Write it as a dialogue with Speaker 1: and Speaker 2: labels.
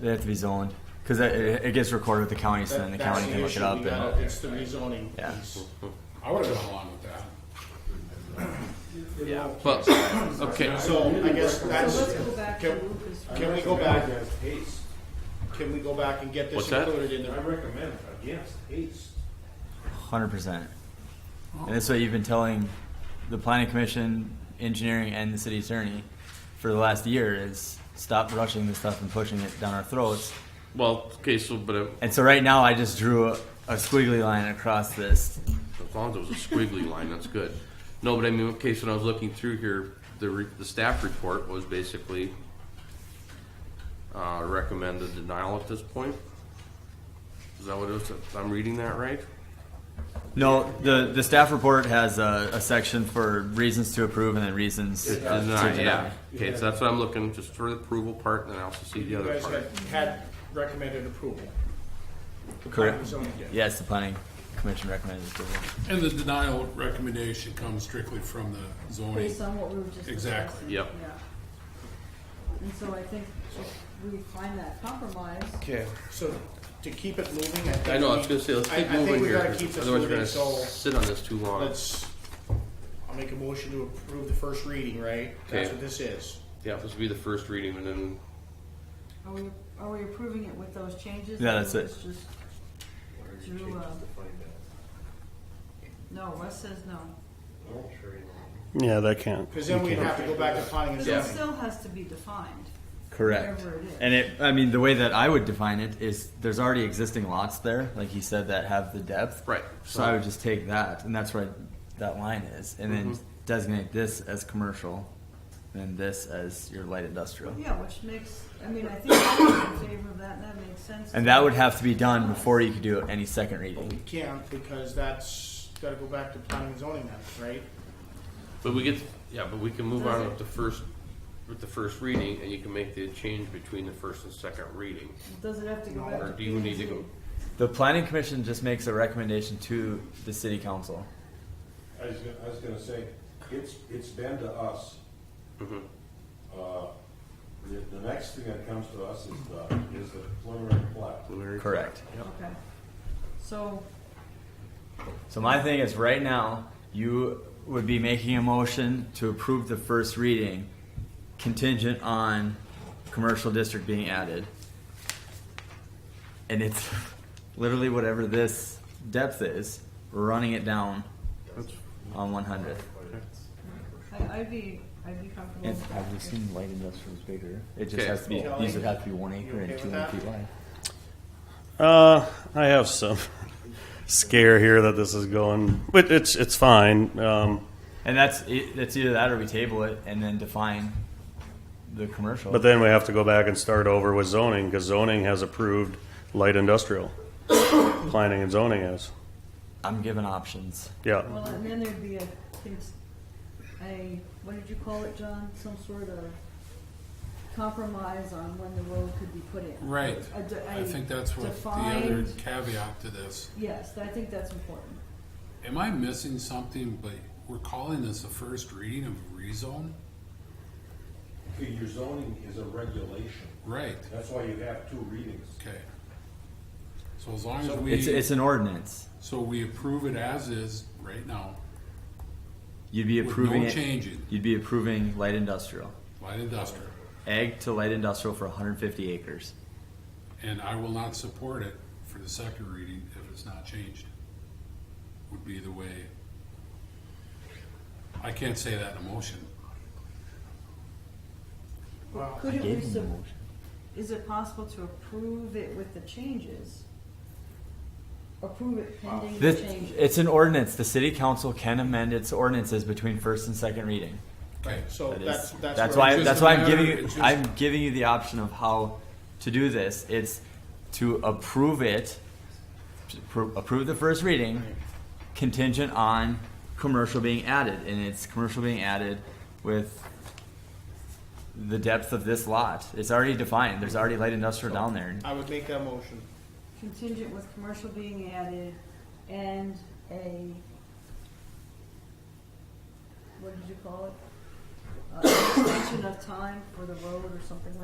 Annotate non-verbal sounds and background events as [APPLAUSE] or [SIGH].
Speaker 1: They have to be zoned because it, it gets recorded with the county, so then the
Speaker 2: That's
Speaker 1: county can look
Speaker 2: issue.
Speaker 1: it up.
Speaker 2: We
Speaker 1: And,
Speaker 2: gotta- It's the rezoning
Speaker 1: Yeah.
Speaker 2: piece. I would've gone along with that.
Speaker 1: yeah.
Speaker 3: But okay,
Speaker 2: So I guess
Speaker 4: So let's
Speaker 2: that's,
Speaker 4: go back to
Speaker 2: can,
Speaker 4: Lucas.
Speaker 2: can we go back, can we go back and get
Speaker 3: What's
Speaker 2: this
Speaker 3: that?
Speaker 2: included in
Speaker 5: I
Speaker 2: there?
Speaker 5: recommend against haste.
Speaker 1: Hundred percent. And that's what you've been telling the planning commission, engineering, and the city attorney for the last year is stop rushing this stuff and pushing it down our throats.
Speaker 3: well, okay, so but uh,
Speaker 1: And so right now, I just drew a, a squiggly line across this.
Speaker 3: as long as it was a squiggly line, that's good. No, but I mean, okay, so when I was looking through here, the re, the staff report was basically uh, recommended denial at this point. Is that what it was? I'm reading that right?
Speaker 1: No, the the staff report has a, a section for reasons to approve and then reasons uh, to
Speaker 3: Deny,
Speaker 1: deny.
Speaker 3: yeah. Okay, so that's what I'm looking, just for the approval part, and then I also see the
Speaker 2: You
Speaker 3: other
Speaker 2: guys
Speaker 3: part.
Speaker 2: had, had recommended approval. The
Speaker 1: Correct.
Speaker 2: planning zoning did.
Speaker 1: Yes, the planning commission recommended approval.
Speaker 6: And the denial recommendation comes strictly from the zoning.
Speaker 4: Based on what we were just
Speaker 6: Exactly.
Speaker 4: discussing.
Speaker 3: Yep.
Speaker 4: Yeah. And so I think if we find that compromise,
Speaker 3: Okay.
Speaker 2: So to keep it moving, I think.
Speaker 3: I know, I
Speaker 2: we-
Speaker 3: was gonna say, let's
Speaker 2: I-
Speaker 3: keep moving here,
Speaker 2: I think we gotta keep
Speaker 3: because
Speaker 2: this
Speaker 3: otherwise we're
Speaker 2: moving,
Speaker 3: gonna
Speaker 2: so
Speaker 3: sit on this too long.
Speaker 2: let's, I'll make a motion to approve the first reading, right? That's
Speaker 3: Okay.
Speaker 2: what this is.
Speaker 3: Yeah, this will be the first reading, and then
Speaker 4: are we, are we approving it with those changes?
Speaker 1: Yeah, that's
Speaker 4: Or
Speaker 1: it.
Speaker 4: it's just Drew, uh, No, Wes says no.
Speaker 7: Yeah, that can't.
Speaker 2: Cause then we'd have to go back to planning and
Speaker 4: Because it
Speaker 2: zoning.
Speaker 4: still has to be defined.
Speaker 1: Correct.
Speaker 4: Whatever it is.
Speaker 1: And it, I mean, the way that I would define it is there's already existing lots there, like you said, that have the depth.
Speaker 3: Right.
Speaker 1: So I would just take that, and that's where that line is, and then designate this as commercial, and this as your light industrial.
Speaker 4: Yeah, which makes, I mean, I think I'm in favor of that, and that makes sense.
Speaker 1: And that would have to be done before you could do any second
Speaker 2: But we
Speaker 1: reading.
Speaker 2: can't because that's, gotta go back to planning and zoning then, right?
Speaker 3: But we get, yeah, but we can move on
Speaker 4: Does it?
Speaker 3: with the first, with the first reading, and you can make the change between the first and second reading.
Speaker 4: Does it have to go back
Speaker 3: Or
Speaker 4: to?
Speaker 3: do you need to go,
Speaker 1: The planning commission just makes a recommendation to the city council.
Speaker 5: I was, gonna- I was gonna say, it's, it's been to us. Uh, the, the next thing that comes to us is the, is the preliminary plat.
Speaker 1: Correct.
Speaker 4: Okay. So,
Speaker 1: So my thing is, right now, you would be making a motion to approve the first reading contingent on commercial district being added. And it's [LAUGHS] literally whatever this depth is, running it down on one hundredth.
Speaker 4: I, I'd be, I'd be comfortable.
Speaker 1: And
Speaker 4: with
Speaker 1: I've
Speaker 4: that.
Speaker 1: just seen light industrial is bigger. It just
Speaker 3: Okay.
Speaker 1: has to be,
Speaker 2: Kelly,
Speaker 1: these would have to be one
Speaker 2: you
Speaker 1: acre
Speaker 2: okay
Speaker 1: and
Speaker 2: with
Speaker 1: two hundred
Speaker 2: that?
Speaker 1: feet wide.
Speaker 7: Uh, I have some [LAUGHS] scare here that this is going, but it's it's fine. Um,
Speaker 1: And that's, it- that's either that or we table it and then define the commercial.
Speaker 7: but then we have to go back and start over with zoning because zoning has approved light industrial [COUGHS] planning and zoning has.
Speaker 1: I'm given options.
Speaker 7: Yeah,
Speaker 4: Well, and then there'd be a, things, a, what did you call it, John? Some sort of compromise on when the road could be put in.
Speaker 6: Right.
Speaker 4: A de-
Speaker 6: I
Speaker 4: a
Speaker 6: think that's what the other
Speaker 4: defined-
Speaker 6: caveat to this.
Speaker 4: Yes, I think that's important.
Speaker 6: Am I missing something, but we're calling this the first reading of a rezone?
Speaker 5: Okay, Your zoning is a regulation,
Speaker 6: Right,
Speaker 5: that's why you have two readings.
Speaker 6: okay. So as long as
Speaker 1: It's,
Speaker 6: we,
Speaker 1: it's an ordinance.
Speaker 6: so we approve it as is right now,
Speaker 1: You'd be
Speaker 6: with
Speaker 1: approving
Speaker 6: no
Speaker 1: it.
Speaker 6: changing,
Speaker 1: You'd be approving light industrial,
Speaker 6: light industrial.
Speaker 1: ag to light industrial for 150 acres.
Speaker 6: And I will not support it for the second reading if it's not changed. Would be the way. I can't say that in a motion.
Speaker 2: Well,
Speaker 4: Couldn't we, sub- is it possible to approve it with the changes? Approve it pending the
Speaker 1: This,
Speaker 4: changes?
Speaker 1: it's an ordinance. The city council can amend its ordinances between first and second reading.
Speaker 6: Okay,
Speaker 2: so
Speaker 1: That is-
Speaker 2: that's, that's.
Speaker 1: that's
Speaker 2: where-
Speaker 1: why.
Speaker 6: It's
Speaker 1: That's
Speaker 6: just a
Speaker 1: why I'm
Speaker 6: matter-
Speaker 1: giving. You,
Speaker 6: it's just-
Speaker 1: I'm giving you the option of how to do this. It's to approve it, to appro- approve the first reading, contingent on commercial being added, and it's commercial being added with the depth of this lot. It's already defined. There's already light industrial down there.
Speaker 2: I would make that motion.
Speaker 4: Contingent with commercial being added and a, what did you call it? Uh, Extension of time for the road or something like